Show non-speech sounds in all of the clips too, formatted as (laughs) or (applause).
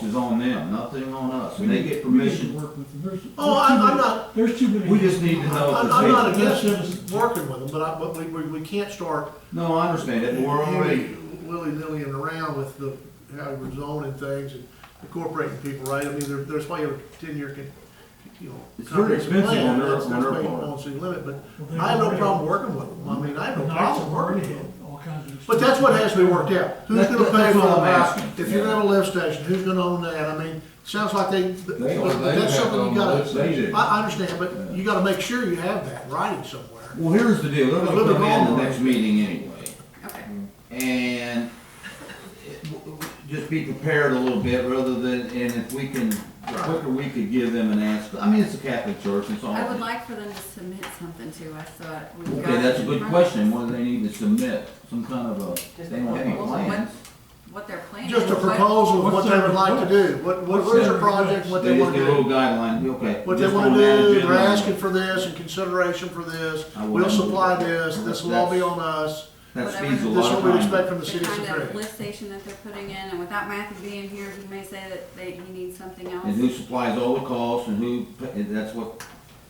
them, nothing on us, We and they need- get we need to permission. work with them. There's- Oh, there's too I'm- I'm many- not- There's too many. We just need to know I'm if I'm not it's, a- against working with them, but I, but we, we, we can't start no, I understand it, but we're already, Willy-nillying around with the, how we're zoning things and incorporating people, right? I mean, there, there's probably a ten-year, con- you know. It's very expensive on plan. their- That's- on that's their why you part. want to see limit, but Well, they I have no already- problem working with them. I mean, I have no Knights problem of working with Red, them. All kinds of. But that's what has to be worked out. Who's That- gonna that- pay that's for the what I'm light? asking. If you're Yeah. gonna have a lift station, who's gonna own that? I mean, sounds like they, They but own- they that's have something you to own the gotta. lift they do. I, I understand, but you gotta make sure you have that in writing somewhere. Well, here's the deal, they're Look gonna at come in Walmart. the next meeting anyway. Okay. And it- w- w- just be prepared a little bit rather than, and if we can, the quicker we could give them an answer. I mean, it's a Catholic church, it's all. I would like for them to submit something to us, so that we've got. Okay, that's a it in good front of question. us. What do they need to submit? Some kind of a, they want any Well, what- plans. What their plan is. Just a what- proposal of what What's they their would like to do, what, what what is their What's their project, what They they just wanna give a little do. guideline, okay. What they just wanna on that do, agenda. they're asking for this and consideration for this, I we'll wouldn't- supply this, this will all be on us. That whatever- speeds a This is lot what we of expect time. from the The city kind of secretary. lift station that they're putting in, and without Matthew being here, he may say that they, he needs something And else. who supplies all the costs and who, pa- and that's what,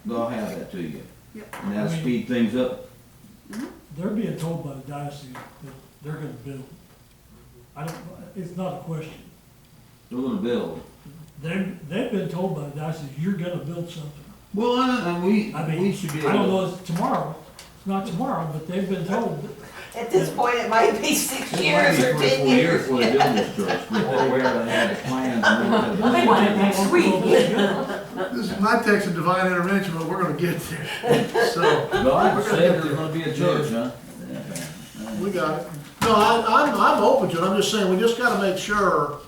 they'll have that to you. Yep. And that'll speed things up. They're being told by the diocese that they're gonna build. I don't, it's not a question. They're gonna build. They've, they've been told by the diocese, you're gonna build something. Well, and, and we, I we mean, should be I don't able, know, it's tomorrow, it's not tomorrow, but they've been told. that- At this point, it might be six it might years be or three, ten four years years. before they build this (laughs) church, before they ever had the plans. and all that. They want it next They've week. been told this. This is my text of divine intervention, but we're gonna get there, (laughs) so. God We're gonna said get there's there. gonna be a church, huh? Yeah. We got it. No, I, I'm, I'm open to it, I'm just saying, we just gotta make sure.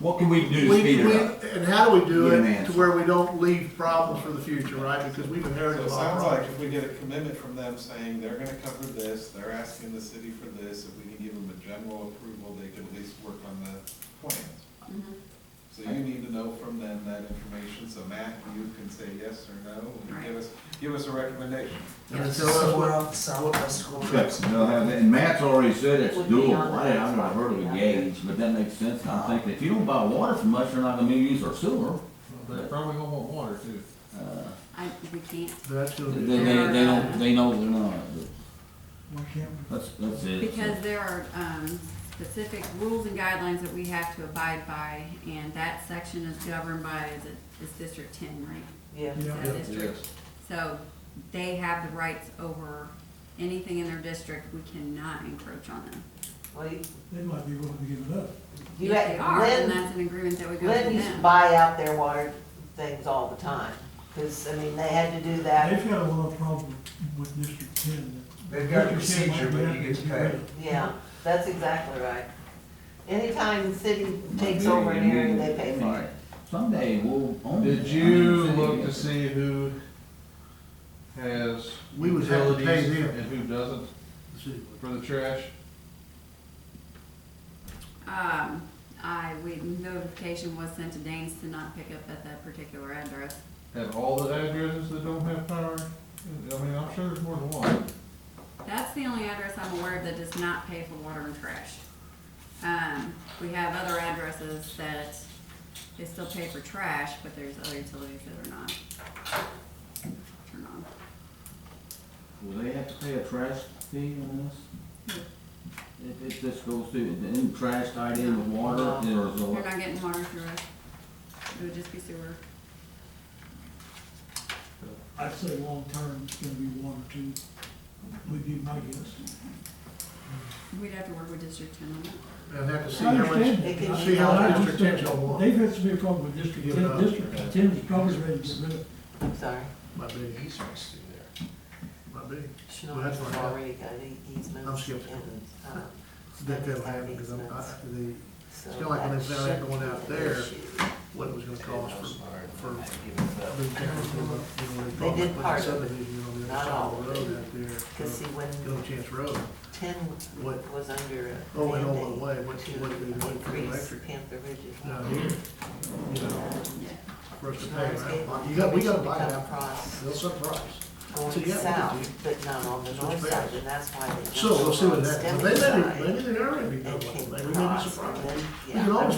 What can we do we to speed we- it up? And how do we do Get an it answer. to where we don't leave problems for the future, right? Because we've So inherited a it lot of sounds like problems. if we get a commitment from them saying they're gonna cover this, they're asking the city for this, if we can give them a general approval, they can at least work on the plans. Mhm. So you need to know from them that information, so Matt, you can say yes or no, and give us, give us a recommendation. And tell us what- Okay, they'll have it, and Matt's already said it's doable, I didn't, I've never heard of a gauge, but that makes sense, I'm thinking, if you don't buy water from us, you're not gonna use our sewer. They probably gonna want water too. I, we can't, That's gonna They, be. they, they don't, they know they're not, but Why can't we? that's, that's it. because there are, um, specific rules and guidelines that we have to abide by, and that section is governed by, is it, is District Ten, right? Yeah. Is that Yeah. district? So they have the rights over anything in their district, we cannot encroach on them. Well, you- They might be willing to give it up. You If they had, are, then Lynn, that's an agreement that we go Lynn to used to them. buy out their water things all the time, because, I mean, they had to do that, They've got a lot of problem with District Ten. that- They've got a District 10 might procedure, be but happy you to get get rid paid. of it. yeah, that's exactly right. Anytime the city takes over an area, they pay for it. Someday we'll own it. Did you look to see who has We would have to pay utilities them. and who doesn't for the trash? Um, I, we, notification was sent to Danes to not pick up at that particular address. And all the addresses that don't have power? I mean, I'm sure there's more than one. That's the only address I'm aware of that does not pay for water and trash. Um, we have other addresses that they still pay for trash, but there's other utilities that are not. Turn on. Will they have to pay a trash fee on this? If, if this goes through, then trash tied in with water, or is They're it? not getting water through us. It would just be sewer. I'd say long-term, it's gonna be one or two, would be my guess. We'd have to work with District Ten on that. And have to see I how much, understand. that. It can- see how I much understand. district ten's gonna want. They've had some big problem with District Give it up. Ten, District Ten is probably ready to get rid of it. I'm sorry. Might be, Easements through there. might be. Well, that's Schnorr's what I- already got e- easements. I'm skeptical. and, uh, That that'll States have happen, because I'm, I, easements, the, so kinda like when that they found out should going be out an there, issue. what it was gonna cost for, for. the They town, you know, did part of it. subdivision on the other Not side all of of the road it. out there. Because see, uh, when Little Chance Road, ten What? was under a oh, went all the mandate way, went, to went, went for increase electric. Panther Ridge's Down water. here, you know, Yeah. for us to pay, Schnorr's gave right? one You got, we gotta permission to buy come it out, across they'll surprise. So, yeah, Going we south, could but not on the It's north just side, bad. and that's why they. So, we'll jumped see what on that, Stemming but they may, side maybe they already know And what, came they may be across, surprised. and then, We yeah. can always